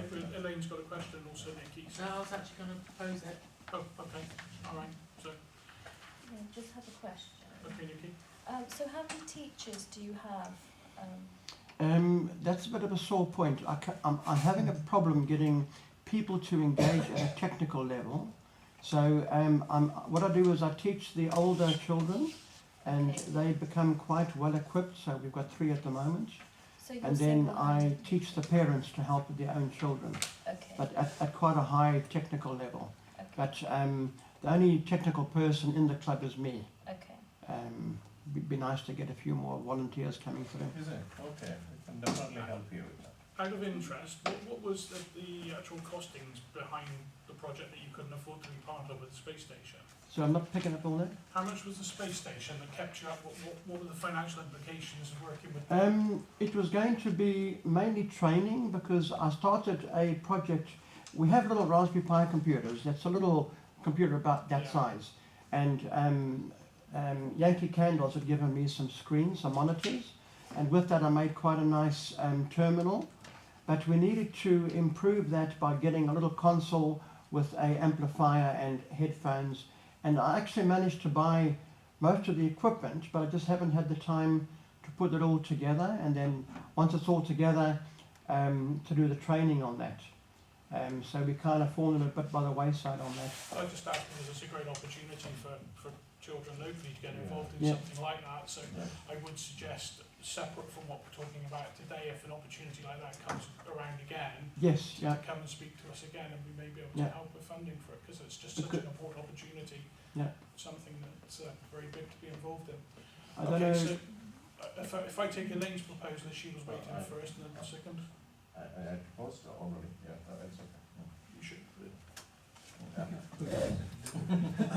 Glenn's got a question, also Nicky's. No, I was actually gonna propose it. Oh, okay, all right, so, Yeah, just have a question. okay, Nicky. Um, so how many teachers do you have? Um, Um, that's a bit of a sore point. I ca- I'm, I'm having a problem getting people to engage at a technical level. So um, I'm, what I do is I teach the older children, and Okay. they become quite well equipped. So we've got three at the moment, so you're and then I single-handed. teach the parents to help with their own children, Okay, but at, at quite a high technical level. okay, But um, the only technical person in the club is me. okay. Um, it'd be nice to get a few more volunteers coming through. Is it? Okay, I can definitely help you with that. Out of interest, what, what was the, the actual costings behind the project that you couldn't afford to be part of at the space station? So I'm not picking up all that. How much was the space station that kept you up? What, what, what were the financial implications of working with? Um, it was going to be mainly training because I started a project. We have little Raspberry Pi computers. That's a little computer about that Yeah. size. And um, um, Yankee Candles had given me some screens, some monitors. And with that, I made quite a nice um, terminal. But we needed to improve that by getting a little console with a amplifier and headphones. And I actually managed to buy most of the equipment, but I just haven't had the time to put it all together and then once it's all together um, to do the training on that. Um, so we kind of fallen a bit by the wayside on that. I just asked because it's a great opportunity for, for children locally to get Yeah. involved in Yeah. something like that. So Yeah. I would suggest, separate from what we're talking about today, if an opportunity like that comes around again, Yes, yeah, to come and speak to us again and we may be able Yeah. to help with funding for it because it's just such an important opportunity. Yeah. Something that's uh, very big to be involved in. I don't okay, know. so uh, if I, if I take Elaine's proposal, she was waiting Alright. first and then the second, I, I had proposed already, yeah, but that's okay. you should. Yeah.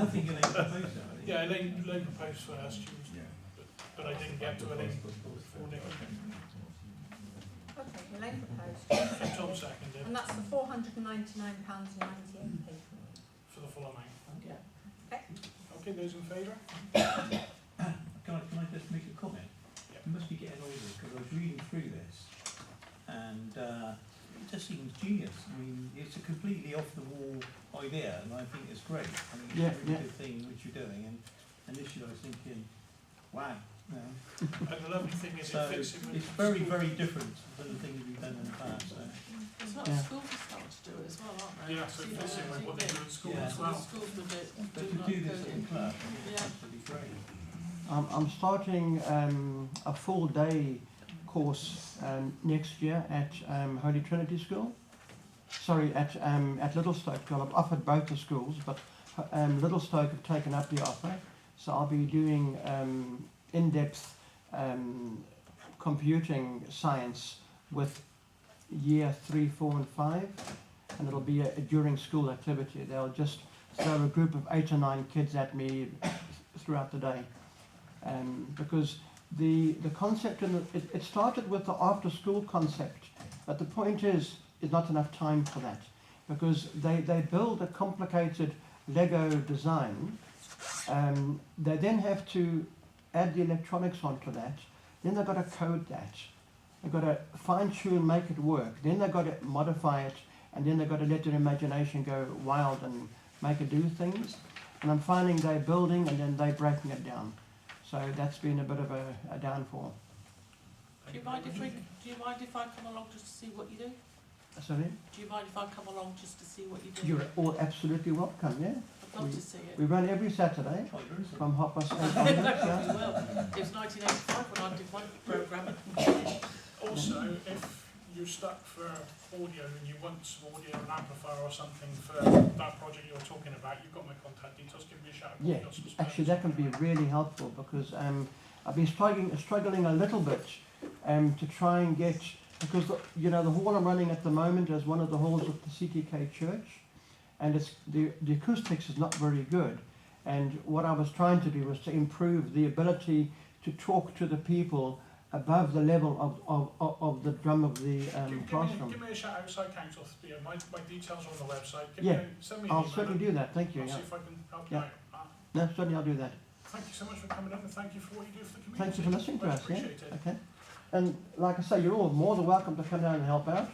I think Elaine proposed that, I think. Yeah, Elaine, Elaine proposed first, she was, but I didn't get to Elaine. Proposed it, Okay, Elaine proposed, Tom seconded and that's the four hundred and ninety-nine pounds and ninety-eight p. for the full amount. Yeah. Okay. Okay, those in favour? Can I, can I just make a comment? Yeah. You must be getting older, because I was reading through this, and, uh, it just seems genius. I mean, it's a completely off-the-wall idea, and I think it's great. I think Yeah, it's a yeah. really good thing which you're doing, and initially I was thinking, wow, you know. And the lovely thing is So, it fits in with. it's very, very different than the things we've done in the past, so. It's not Yeah. schools are starting to do it as well, aren't they? Yeah, so Do it you fits know, in with do what you they do think? in school Yeah. as So the well. schools will do, But do to not do this go in in. class, I think Yeah. it's absolutely great. I'm, I'm starting um, a full day course um, next year at um, Holy Trinity School. Sorry, at um, at Littlestoke. Well, I've offered both the schools, but um, Littlestoke have taken up the offer. So I'll be doing um, in-depth um, computing science with year three, four, and five, and it'll be a, a during school activity. They'll just throw a group of eight or nine kids at me throughout the day um, because the the concept and it, it started with the after school concept, but the point is is not enough time for that because they, they build a complicated Lego design. Um, they then have to add the electronics onto that. Then they've got to code that. They've got to fine tune, make it work. Then they've got to modify it, and then they've got to let their imagination go wild and make it do things. And I'm finding they're building and then they're breaking it down. So that's been a bit of a, a downfall. Do you mind if we, do you mind if I come along just to see what you do? Sorry? Do you mind if I come along just to see what you do? You're all absolutely welcome, yeah? I'd love to see it. We run every Saturday Quite versatile. from half past eight No, onwards, you yeah? will. It was nineteen eighty-five when I did my programme. Also, if you're stuck for audio and you want some audio, an amplifier or something for that project you're talking about, you've got my contact details, give me a shout. Yeah, Actually, that can be really helpful because um, I've been struggling, struggling a little bit um, to try and get, because, the, you know, the hall I'm running at the moment is one of the halls of the CTK church and it's, the, the acoustics is not very good. And what I was trying to do was to improve the ability to talk to the people above the level of, of, of, of the drum of the Give um, me, give classroom. me a shout outside council, you know, my, my details are on the website, give me, Yeah, a- send me an email. I'll certainly do that, thank you. I'll Yeah. see if I can help you Yeah. out. Uh, No, certainly I'll do that. Thank you so much for coming up and thank you for what you do for the community. Thank you for listening to Much us, yeah? appreciated. Okay. And like I say, you're all more than welcome to come down and help out.